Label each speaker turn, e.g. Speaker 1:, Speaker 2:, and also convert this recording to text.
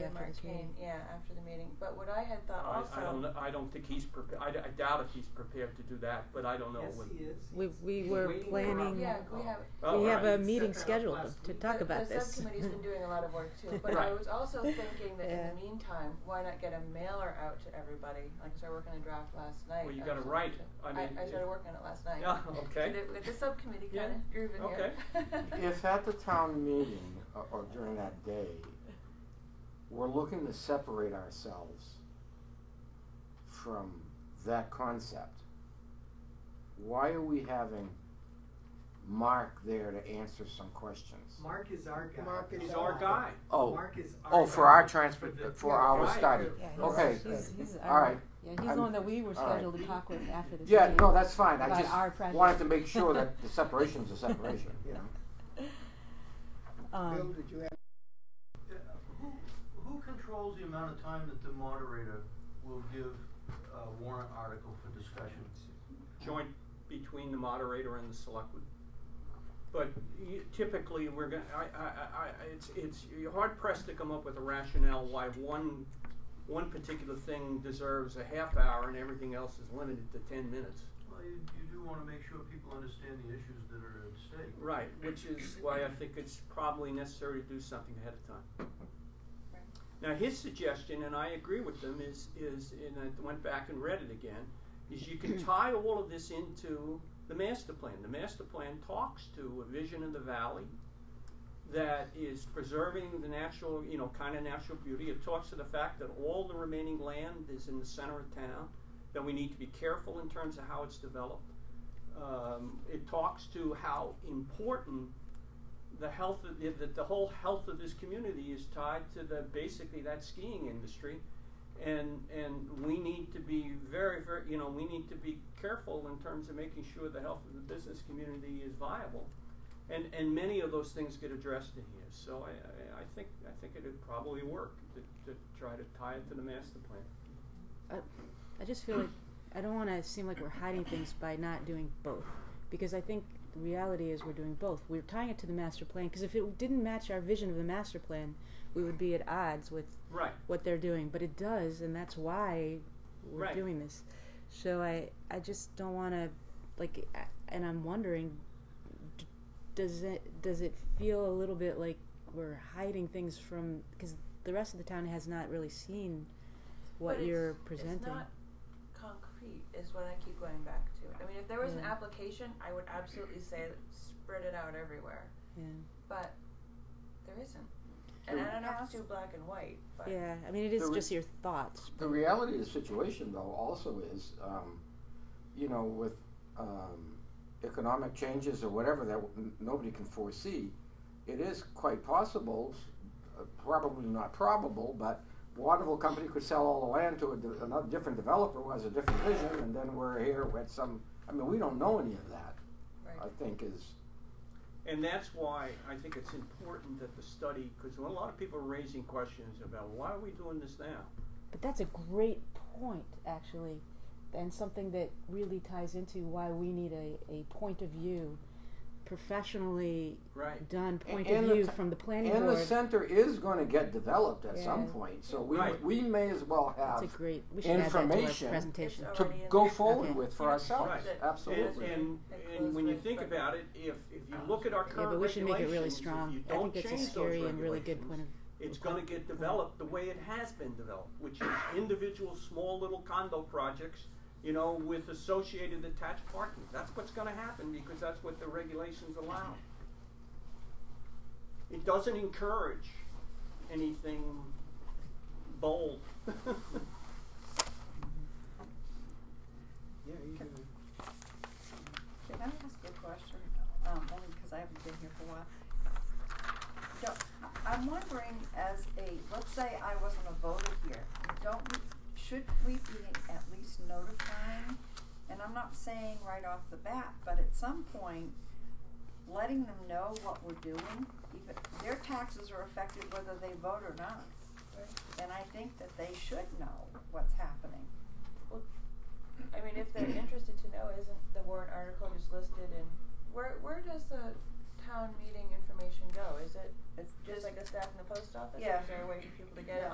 Speaker 1: Mark
Speaker 2: After the
Speaker 1: came,
Speaker 2: meeting.
Speaker 1: yeah, after the meeting. But what I had thought
Speaker 3: I,
Speaker 1: also,
Speaker 3: I don't, kn- I don't think he's prepared, I, d- I doubt if he's prepared to do that, but I don't know
Speaker 4: Yes,
Speaker 3: what.
Speaker 4: he is.
Speaker 2: We-
Speaker 4: He's-
Speaker 2: we
Speaker 4: he's
Speaker 2: were
Speaker 4: waiting for a
Speaker 2: planning-
Speaker 1: yeah, we
Speaker 4: call.
Speaker 1: have
Speaker 3: Oh,
Speaker 2: we
Speaker 3: all
Speaker 2: have
Speaker 3: right.
Speaker 2: a meeting
Speaker 4: Set that up
Speaker 2: scheduled
Speaker 4: last
Speaker 2: to
Speaker 4: week.
Speaker 2: talk
Speaker 1: the,
Speaker 2: about
Speaker 1: the
Speaker 2: this.
Speaker 1: subcommittee's been doing a lot of work too. But I
Speaker 3: Right.
Speaker 1: was also thinking that
Speaker 2: Yeah.
Speaker 1: in the meantime, why not get a mailer out to everybody? Like I started working on a draft last night.
Speaker 3: Well, you
Speaker 1: of
Speaker 3: gotta
Speaker 1: some-
Speaker 3: write it. I mean,
Speaker 1: I,
Speaker 3: if-
Speaker 1: started working on it last night.
Speaker 3: Yeah,
Speaker 1: Get
Speaker 3: okay.
Speaker 1: it- Get the subcommittee
Speaker 3: Yeah.
Speaker 1: kind of grooving
Speaker 3: Okay.
Speaker 1: here.
Speaker 5: If at the town meeting or- or during that day, we're looking to separate ourselves from that concept, why are we having Mark there to answer some questions?
Speaker 4: Oh. Mark is our guy.
Speaker 6: Mark is
Speaker 3: He's our guy.
Speaker 5: Oh,
Speaker 4: Mark is our
Speaker 5: oh, for our
Speaker 4: guy.
Speaker 5: transport,
Speaker 4: the-
Speaker 5: for our
Speaker 3: Right.
Speaker 5: study.
Speaker 2: Yeah, he's-
Speaker 5: Okay,
Speaker 2: he's- he's
Speaker 5: all
Speaker 2: our-
Speaker 5: right.
Speaker 2: Yeah, he's
Speaker 5: I'm-
Speaker 2: the one that we were
Speaker 5: all right.
Speaker 2: scheduled to talk with after this
Speaker 5: Yeah,
Speaker 2: meeting.
Speaker 5: no, that's fine. I
Speaker 2: About our
Speaker 5: just
Speaker 2: project.
Speaker 5: wanted to make sure that the separation's a separation, you know?
Speaker 6: Bill,
Speaker 2: Um,
Speaker 6: did you have?
Speaker 7: Yeah, Who, who controls the amount of time that the moderator will give a warrant article for discussion?
Speaker 3: joint between the moderator and the selectman. But you- typically, we're gonna, I, I, I, I- it's, it's, you're hard pressed to come up with a rationale why one, one particular thing deserves a half hour and everything else is limited to ten minutes.
Speaker 7: Well, you, you do wanna make sure people understand the issues that are at stake.
Speaker 3: Right, which is why I think it's probably necessary to do something ahead of time. Now, his suggestion, and I agree with them, is, is, and I went back and read it again, is you can tie all of this into the master plan. The master plan talks to a vision of the valley that is preserving the natural, you know, kind of natural beauty. It talks to the fact that all the remaining land is in the center of town, that we need to be careful in terms of how it's developed um, it talks to how important the health of the, the, the whole health of this community is tied to the basically that skiing industry and and we need to be very very you know we need to be careful in terms of making sure the health of the business community is viable and and many of those things get addressed in here so i i, I think i think it would probably work to, to try to tie it to the master plan
Speaker 2: I I just feel like, I don't wanna seem like we're hiding things by not doing both, because I think the reality is we're doing both. We're tying it to the master plan, cause if it didn't match our vision of the master plan, we would be at odds with
Speaker 3: right
Speaker 2: what they're doing, but it does, and that's why we're
Speaker 3: Right.
Speaker 2: doing this. So I, I just don't want to, like, I- and I'm wondering, d- does it does it feel a little bit like we're hiding things from because the rest of the town has not really seen what
Speaker 1: But it's-
Speaker 2: you're
Speaker 1: it's
Speaker 2: presenting.
Speaker 1: not concrete is what I keep going back to. I mean, if there was an
Speaker 2: Yeah.
Speaker 1: application, I would absolutely say spread it out everywhere.
Speaker 2: yeah.
Speaker 1: But there isn't. And I don't know if it's too black and white, but
Speaker 2: yeah, I mean, it is
Speaker 5: The re-
Speaker 2: just your thoughts.
Speaker 5: The reality of the situation, though, also is, um, you know, with um, economic changes or whatever that n- nobody can foresee, it is quite possible, uh, probably not probable, but Waterville Company could sell all the land to a, de- another different developer who has a different vision, and then we're here with some. I mean, we don't know any of that. I
Speaker 1: right.
Speaker 5: think is
Speaker 3: And that's why I think it's important that the study, because a lot of people are raising questions about why are we doing this now?
Speaker 2: But that's a great point, actually, and something that really ties into why we need a, a point of view, professionally
Speaker 3: Right.
Speaker 2: done point
Speaker 5: and
Speaker 2: of
Speaker 5: the
Speaker 2: view
Speaker 5: t-
Speaker 2: from the planning
Speaker 5: and the
Speaker 2: board.
Speaker 5: center is going to get developed at some
Speaker 2: Yeah.
Speaker 5: point, so we
Speaker 3: Right.
Speaker 5: we may as well
Speaker 2: That's
Speaker 5: have
Speaker 2: a great. We should add that to
Speaker 5: information
Speaker 2: our presentation.
Speaker 1: It's
Speaker 5: to
Speaker 1: already in
Speaker 5: go
Speaker 1: there.
Speaker 5: forward
Speaker 2: Okay.
Speaker 5: with for
Speaker 1: Yeah.
Speaker 5: ourselves.
Speaker 1: Right.
Speaker 3: And,
Speaker 5: Absolutely.
Speaker 3: and, and when you think about it, if, if you look at our
Speaker 2: Yeah,
Speaker 3: current
Speaker 2: but we should make it really
Speaker 3: regulations, if
Speaker 2: strong.
Speaker 3: you
Speaker 2: I
Speaker 3: don't
Speaker 2: think that's a
Speaker 3: change those
Speaker 2: scary and really good
Speaker 3: regulations,
Speaker 2: point of.
Speaker 3: it's gonna get developed the way it has been developed, which is individual small little condo projects, you know, with associated attached parking. That's what's gonna happen because that's what the regulations allow. It doesn't encourage anything bold.
Speaker 4: Yeah, you do.
Speaker 8: Can I ask a question, um, only because I haven't been here for a while? Don't, I- I'm wondering as a, let's say I wasn't a voter here, don't we, should we be at least notifying? And I'm not saying right off the bat, but at some point, letting them know what we're doing, even, their taxes are affected whether they vote or not. And I think that they should know what's happening.
Speaker 1: I mean, if they're interested to know, isn't the warrant article just listed in where where does the town meeting information go? Is it
Speaker 8: It's
Speaker 1: just like a stack in the post office?
Speaker 8: Yeah.
Speaker 1: Or is there a way for people to get it
Speaker 8: Yeah.